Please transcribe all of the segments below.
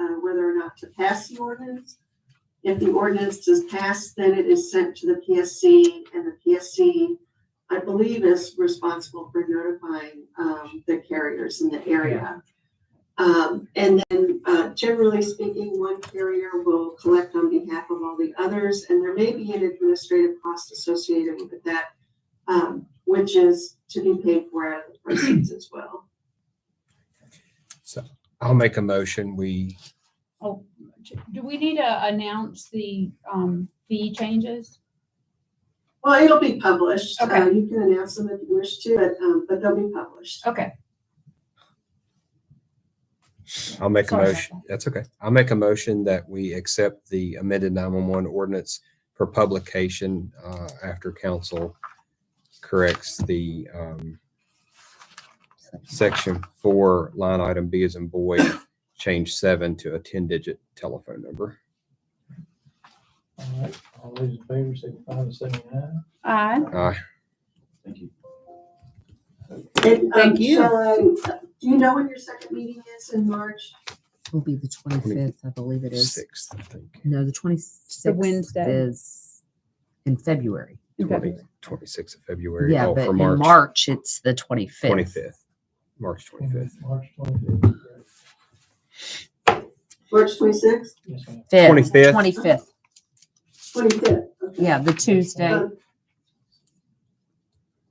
uh, not to pass the ordinance. If the ordinance is passed, then it is sent to the PSC, and the PSC, I believe, is responsible for notifying, um, the carriers in the area. Um, and then, uh, generally speaking, one carrier will collect on behalf of all the others, and there may be an administrative cost associated with that, um, which is to be paid for out of the proceeds as well. So I'll make a motion. We, Do we need to announce the um, fee changes? Well, it'll be published. Okay. Uh, You can announce them if you wish to, but, um, but they'll be published. Okay. I'll make a Sorry about motion. That's okay. I'll make a motion that we accept the amended 911 ordinance for publication uh, after council corrects the um, section four, line item B as in boy, change seven to a 10-digit telephone number. All right, all those in favor, signify by saying aye. Aye. Uh, Thank you. And, um, Thank you. shall I- Do you know when your second meeting is in March? will be the twenty-fifth, I believe it is. Sixth, I think. No, the twenty-sixth Wednesday. is in February. 20 26th of February. Yeah, Oh, but for in March March, it's the twenty-fifth. 25th. March 25th. March twenty-fifth. March twenty-sixth, Yes, ma'am. Twenty-fifth. Twenty-fifth, twenty-fifth? yeah, the Tuesday. Um,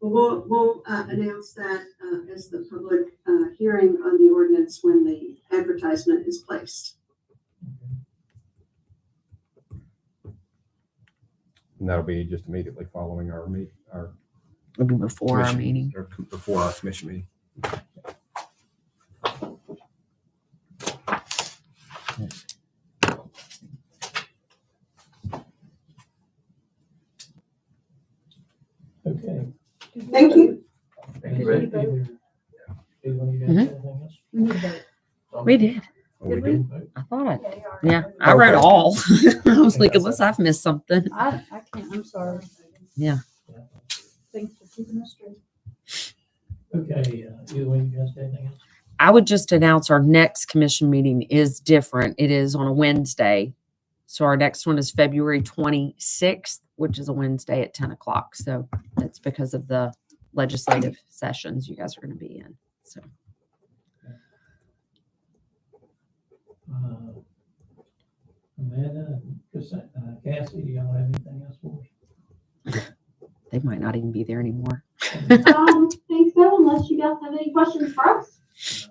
We'll, we'll, uh, announce that, uh, as the public, uh, hearing on the ordinance when the advertisement is placed. And that'll be just immediately following our meet, our It'll be before our commission- meeting. or c- Before our commission meeting. Okay. Thank you. Thank you. Did we Either- either one of you guys have anything else? We need to vote. We did, Well, we Did we? did- Vote. I thought I, Okay, all right. yeah, I wrote Okay. all. I was Okay, like, that's unless it. I've missed something. I, I can't, I'm sorry. Yeah. Thanks for keeping us straight. Okay, uh, either one of you guys have anything else? I would just announce our next commission meeting is different. It is on a Wednesday. So our next one is February twenty-sixth, which is a Wednesday at ten o'clock. So that's because of the legislative sessions you guys are gonna be in. So Uh, Amanda, and Chris- uh, Cassie, do y'all have anything else for us? they might not even be there anymore. I don't think Um, so, unless you guys have any questions for us.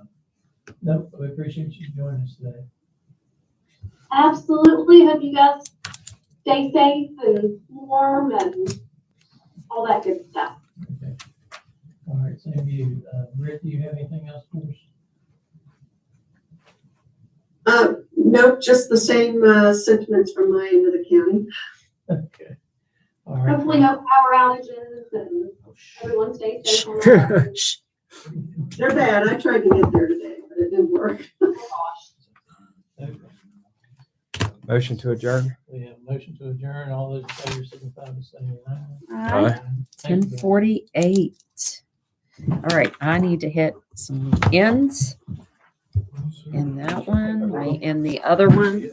No, we appreciate you joining us today. Absolutely. Hope you guys stay safe and warm and all that good stuff. Okay. All right, same to you. Uh, Rick, do you have anything else for us? Uh, no, just the same, uh, sentiments from my end of the county. Okay. All right. Oh, Hopefully no power outages and everyone stays safe. and all that. They're bad. I tried to get there today, but it didn't work. Oh, gosh. Okay. Motion to adjourn? We have a motion to adjourn. All those in favor signify by saying aye. Aye. Thank Ten you. forty-eight. All right, I need to hit some ends in that one, right, and the other one.